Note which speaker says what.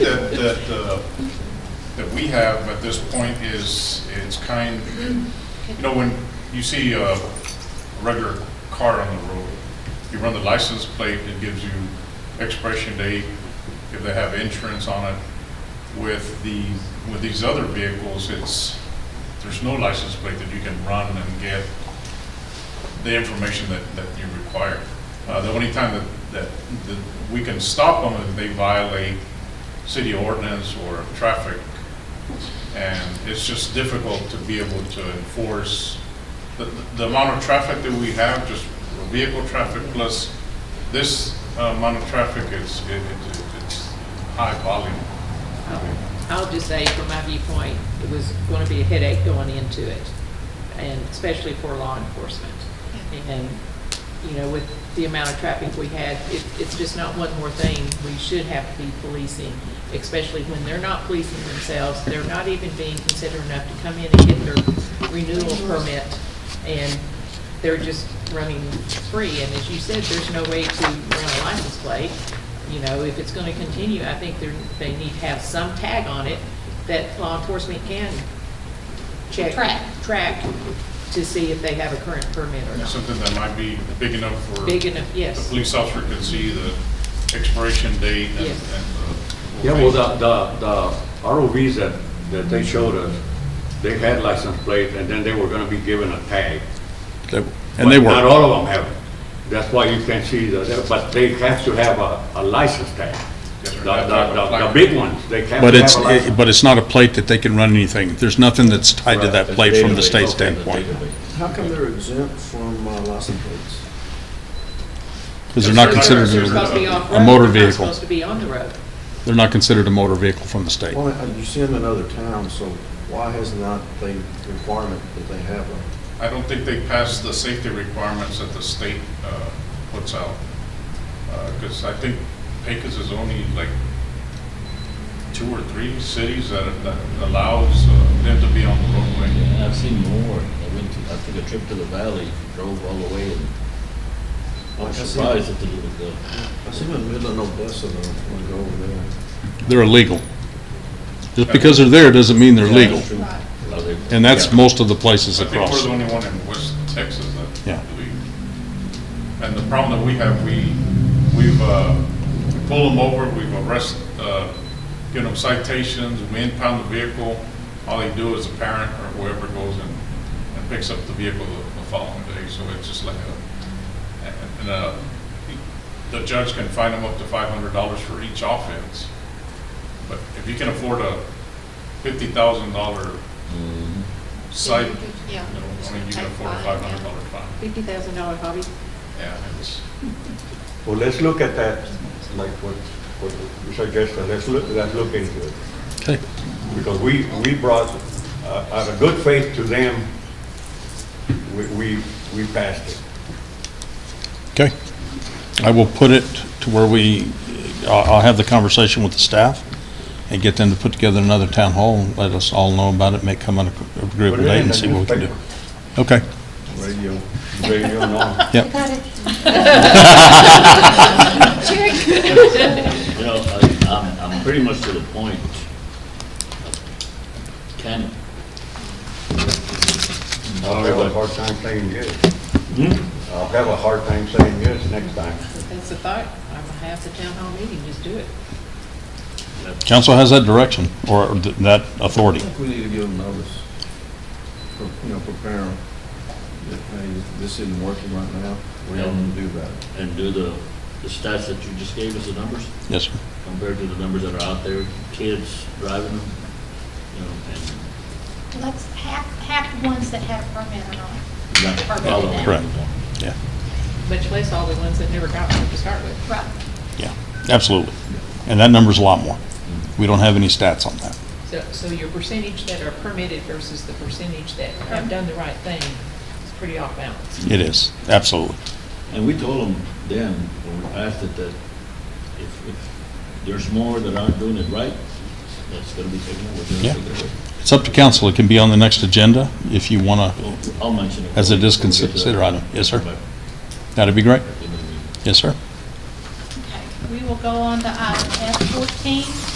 Speaker 1: that, uh, that we have at this point is, it's kind, you know, when you see uh, a regular car on the road, you run the license plate, it gives you expiration date, if they have insurance on it. With the, with these other vehicles, it's, there's no license plate that you can run and get the information that, that you require. Uh, the only time that, that, that we can stop them if they violate city ordinance or traffic. And it's just difficult to be able to enforce the, the amount of traffic that we have, just vehicle traffic plus this uh, amount of traffic is, it, it- it's high volume.
Speaker 2: Um, I'll just say, from my viewpoint, it was going to be a headache going into it, and especially for law enforcement. And, you know, with the amount of traffic we had, it, it's just not one more thing we should have to be policing, especially when they're not policing themselves, they're not even being considerate enough to come in and get their renewal permit, and they're just running free. And as you said, there's no way to run a license plate, you know, if it's gonna continue, I think they're, they need to have some tag on it that law enforcement can check.
Speaker 3: Track.
Speaker 2: Track to see if they have a current permit or
Speaker 1: It's
Speaker 2: not.
Speaker 1: Something that might be big enough for.
Speaker 2: Big enough,
Speaker 1: The
Speaker 2: yes.
Speaker 1: police officer could see the expiration date and.
Speaker 2: Yes.
Speaker 1: and, uh,
Speaker 4: Yeah, well, the, the, the ROVs that, that they showed us, they had license plate, and then they were gonna be given a tag.
Speaker 5: They- And they
Speaker 4: But Not
Speaker 5: were,
Speaker 4: all of them have it. That's why you can see the, but they have to have a, a license tag.
Speaker 1: Yes,
Speaker 4: The,
Speaker 1: sir.
Speaker 4: the, the, the big ones, they have
Speaker 5: but
Speaker 4: to
Speaker 5: it's,
Speaker 4: have a license.
Speaker 5: but it's not a plate that they can run anything. There's nothing that's tied to that
Speaker 6: Right,
Speaker 5: plate from the
Speaker 6: database,
Speaker 5: state
Speaker 6: okay, the
Speaker 5: standpoint,
Speaker 6: database.
Speaker 7: How come they're exempt from uh, license plates?
Speaker 5: because they're not
Speaker 1: Yes,
Speaker 5: considered,
Speaker 2: They're
Speaker 1: Considered
Speaker 2: supposed to be
Speaker 1: a-
Speaker 2: off-road,
Speaker 5: a motor
Speaker 2: they're not
Speaker 5: vehicle.
Speaker 2: supposed to be on the road.
Speaker 5: they're not considered a motor vehicle from the state.
Speaker 7: Well, uh, you see them in other towns, so why has not the requirement that they have them?
Speaker 1: I don't think they pass the safety requirements that the state uh, puts out. Because I think Pecos is only like two or three cities that that allows uh, them to be on the roadway.
Speaker 6: Yeah, I've seen more. I went to, I took a trip to the valley, drove all the way, and
Speaker 7: Like
Speaker 6: I
Speaker 7: I
Speaker 6: was
Speaker 7: said-
Speaker 6: surprised at the, the,
Speaker 7: I see them in Midland, Odessa, though, when I go over there.
Speaker 5: They're illegal. Just because they're there doesn't mean they're legal, and that's most of the places
Speaker 1: I think we're
Speaker 5: across.
Speaker 1: the only one in West Texas that.
Speaker 5: Yeah.
Speaker 1: we- And the problem that we have, we, we've, uh, we pull them over, we've arrest, uh, given them citations, we impound the vehicle. All they do is a parent or whoever goes and, and picks up the vehicle the the following day. So it's just like a, and, uh, the judge can fine them up to five hundred dollars for each offense. But if you can afford a fifty thousand dollar site
Speaker 3: Yeah.
Speaker 1: you know, I mean, you can afford a five hundred dollar fine.
Speaker 2: Fifty thousand dollar hobby.
Speaker 1: Yeah, it's,
Speaker 4: Well, let's look at that, like what, what you suggested, let's look, let's look into it.
Speaker 5: Okay.
Speaker 4: because we, we brought, uh, out of good faith to them, we, we, we passed it.
Speaker 5: Okay. I will put it to where we, I'll, I'll have the conversation with the staff and get them to put together another town hall and let us all know about it, make come on a
Speaker 4: Put
Speaker 5: agreeable
Speaker 4: it
Speaker 5: date
Speaker 4: in
Speaker 5: and
Speaker 4: the
Speaker 5: see what we can do.
Speaker 4: newspaper.
Speaker 5: Okay.
Speaker 4: Radio, radio and all.
Speaker 6: you know, I, I'm, I'm pretty much to the point. Can,
Speaker 4: I'll have a hard time saying yes. I'll have a hard time saying yes next time.
Speaker 2: If that's the thought, I'm gonna have the town hall meeting, just do it.
Speaker 5: Council has that direction or th- that
Speaker 7: I
Speaker 5: authority.
Speaker 7: think we need to give them notice, for you know, prepare them, that, hey, this isn't working right now, what do you want to do about it?
Speaker 6: and do the, the stats that you just gave us, the numbers,
Speaker 5: Yes, sir.
Speaker 6: compared to the numbers that are out there, kids driving them, you know, and
Speaker 3: Let's hack, hack ones that have permit or not.
Speaker 6: not
Speaker 3: Perfect.
Speaker 6: following them.
Speaker 5: Correct. Yeah,
Speaker 2: Much less all the ones that never got one to start with.
Speaker 3: Right.
Speaker 5: yeah, absolutely. And that number's a lot more. We don't have any stats on that.
Speaker 2: So, so your percentage that are permitted versus the percentage that have done the right thing is pretty off balance.
Speaker 5: It is, absolutely.
Speaker 6: And we told them then, when we passed it, that if, if there's more that aren't doing it right, that's gonna be taken out, we're
Speaker 5: Yeah.
Speaker 6: gonna take it
Speaker 5: It's up to council. It can be on the next agenda if you want to,
Speaker 6: away. I'll- I'll mention it.
Speaker 5: As it is
Speaker 6: when we get to
Speaker 5: considered
Speaker 6: that.
Speaker 5: item. Yes, sir.
Speaker 6: But,
Speaker 5: that'd be great.
Speaker 6: you know, we-
Speaker 5: Yes, sir.
Speaker 3: Okay, we will go on to item F fourteen,